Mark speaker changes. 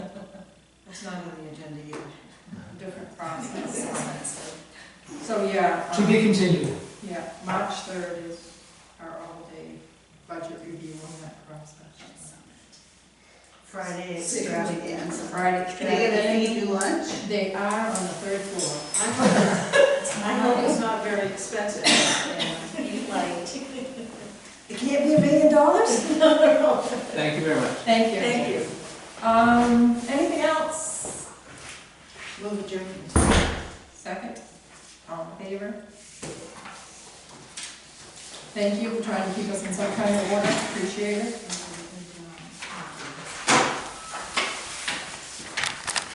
Speaker 1: It's not on the agenda either, different process.
Speaker 2: expensive.
Speaker 1: So, yeah.
Speaker 3: To
Speaker 1: um,
Speaker 3: be continued.
Speaker 1: Yeah, March third is our all-day budget review on that process.
Speaker 2: Friday
Speaker 4: Six.
Speaker 2: extravaganza.
Speaker 1: Friday.
Speaker 2: Can I get a thank you lunch?
Speaker 1: They are on the third floor.
Speaker 4: I hope, I hope it's not very expensive.
Speaker 2: Eat light. It can't be a million dollars?
Speaker 3: Thank you very much.
Speaker 1: Thank you.
Speaker 4: Thank you.
Speaker 1: Um, anything else?
Speaker 2: Move adjourned.
Speaker 1: Second, all in favor? Thank you for trying to keep us in some kind of order, appreciate it.